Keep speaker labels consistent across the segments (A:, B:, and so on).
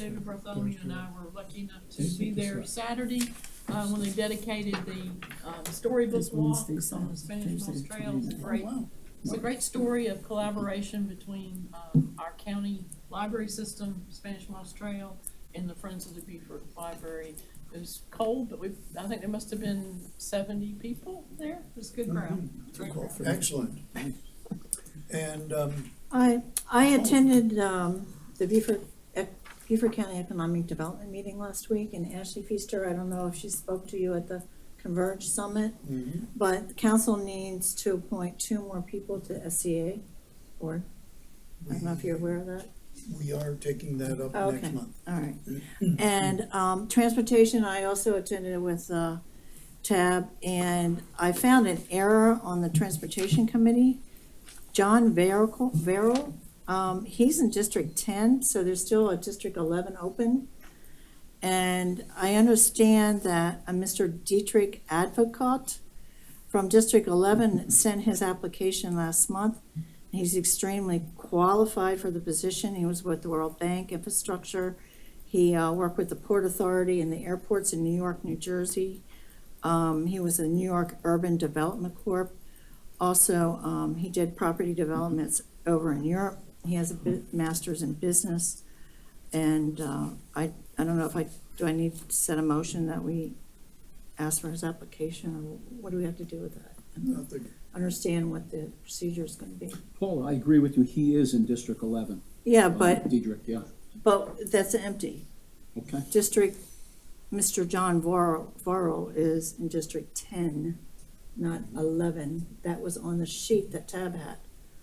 A: David Bartholomew and I were lucky enough to be there Saturday, uh, when they dedicated the, um, storybook
B: It's Wednesday,
A: walks on the
B: Saturday,
A: Spanish Moss
B: Thursday,
A: Trail. It's a
C: Oh,
B: Friday.
A: great, it's a great story of collaboration between, um, our county library system, Spanish Moss Trail, and the Friends of the Beaufort Library. It was cold, but we, I think there must have been seventy people there. It was a Mm-hmm. good crowd. Great crowd.
D: Excellent. And, um,
C: I, I attended um, the Beaufort, Ec- Beaufort County Economic Development Meeting last week, and Ashley Feaster, I don't know if she spoke to you at the Converge Summit,
D: mhm,
C: but the council needs to appoint two more people to SCA board. I don't know if you're aware of that.
D: we are taking that up next
C: Okay.
D: month. Mm-hmm.
C: All right. And um, transportation, I also attended with uh, TAB, and I found an error on the transportation committee. John Verrill, Verrill, um, he's in District 10, so there's still a District 11 open. And I understand that a Mr. Dietrich Advocat from District 11 sent his application last month. He's extremely qualified for the position. He was with the World Bank Infrastructure. He uh, worked with the Port Authority and the airports in New York, New Jersey. Um, He was a New York Urban Development Corp. Also, um, he did property developments over in Europe. He has a bu- master's in business. And uh, I, I don't know if I, do I need to set a motion that we ask for his application? Or what do we have to do with that?
D: Nothing.
C: Understand what the procedure is going to be.
E: Paul, I agree with you, he is in District eleven.
C: Yeah,
E: Uh,
C: but,
E: Diedrich, yeah,
C: but that's empty.
E: okay.
C: District, Mr. John Varro, Varro is in District ten, not eleven. That was on the sheet that Tab had.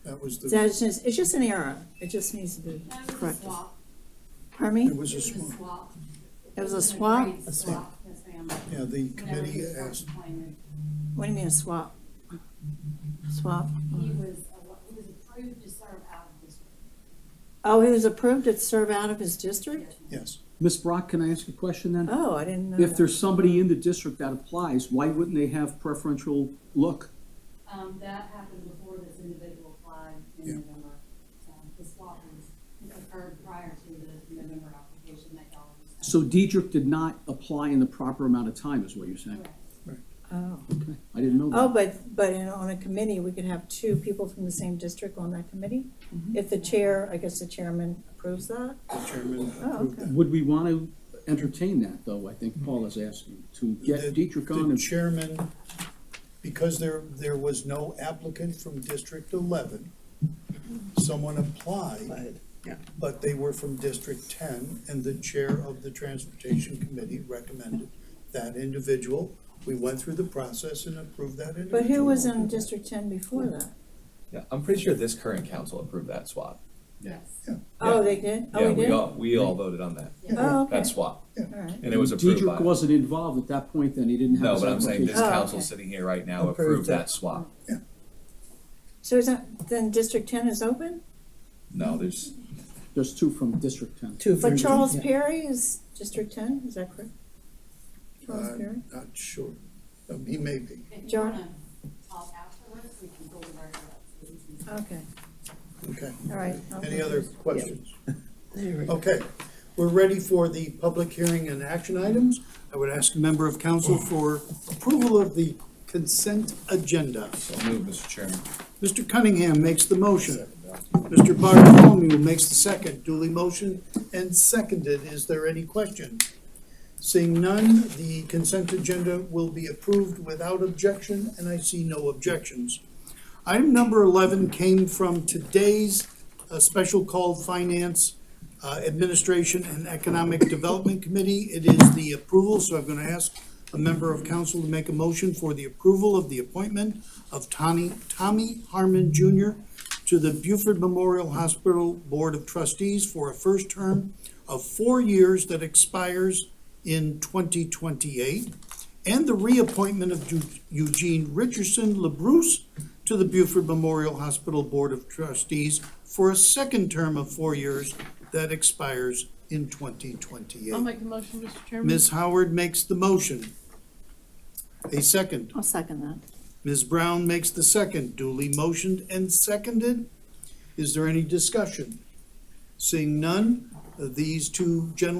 D: That was the,
C: That's just, it's just an error. It just needs to be
F: That was a
C: corrected.
F: swap.
C: Pardon
D: it
C: me?
D: was a
F: It was a
D: swap.
F: swap.
C: It was a swap?
F: grade swap, yes, ma'am.
D: Yeah, the
F: Whenever he
D: committee
F: was first
D: asked,
F: appointed,
C: What do you mean a swap? Swap?
F: He was, a- he was approved to serve out of this.
C: Oh, he was approved to serve out of his district?
D: yes,
E: Ms. Brock, can I ask a question then?
C: Oh, I didn't know
E: If
C: that.
E: there's somebody in the district that applies, why wouldn't they have preferential look?
F: Um, that happened before this individual applied
D: Yeah.
F: in November. Um, The swap was occurred prior to the November application that y'all. were
E: So
F: sent.
E: Diedrich did not apply in the proper amount of time, is what you're saying?
F: Correct.
C: Oh.
E: Okay, I didn't know
C: Oh,
E: that.
C: but, but in- on a committee, we could have two people from the same district on that committee? If the chair, I guess the chairman approves that?
D: the chairman approved
C: Oh, okay.
D: that.
E: Would we want to entertain that, though, I think Paul is asking, to
D: The-
E: get Diedrich on
D: The
E: and
D: chairman, because there, there was no applicant from District eleven, someone applied, but they were from District ten, and the chair of the transportation committee recommended that individual. We went through the process and approved that individual.
C: But who was in District Ten before that?
G: Yeah, I'm pretty sure this current council approved that swap.
F: Yes.
C: Oh, they did?
G: Yeah,
C: Oh,
G: we
C: did?
G: all, we all voted on that,
C: Oh, okay.
G: that swap,
C: All right.
G: and it was approved by.
E: Diedrich wasn't involved at that point, then he didn't have
G: No,
E: his
G: but I'm saying this
E: application.
C: Oh,
G: council
C: okay.
G: sitting here right now
D: Approved
G: approved
D: that.
G: that swap.
C: So is that, then District Ten is open?
G: No, there's,
C: Oh.
E: There's two from District ten.
B: Two
C: But
B: from-
C: Charles Perry is District Ten, is that correct?
G: Uh,
C: Charles Perry?
D: I'm not sure. Um, He may be.
F: If you
C: John?
F: wanna talk afterwards, we can go over that.
C: Okay,
D: Okay.
C: all right.
D: Any other questions?
B: There we go.
D: Okay. We're ready for the public hearing and action items. I would ask a member of council for approval of the consent agenda.
G: so move, Mr. Chairman.
D: Mr. Cunningham makes the motion. Mr. Bartholomew makes the second. Duly motion and seconded. Is there any question? Seeing none, the consent agenda will be approved without objection, and I see no objections. Item number 11 came from today's uh, special call Finance uh, Administration and Economic Development Committee. It is the approval, so I'm going to ask a member of council to make a motion for the approval of the appointment of Tommy, Tommy Harmon Jr. to the Buford Memorial Hospital Board of Trustees for a first term of four years that expires in 2028, and the reappointment of Eu- Eugene Richardson LaBruce to the Buford Memorial Hospital Board of Trustees for a second term of four years that expires in
A: I'll
D: 2028.
A: make the motion, Mr. Chairman.
D: Ms. Howard makes the motion. A second.
C: I'll second that.
D: Ms. Brown makes the second, duly motioned and seconded. Is there any discussion? Seeing none, uh, these two general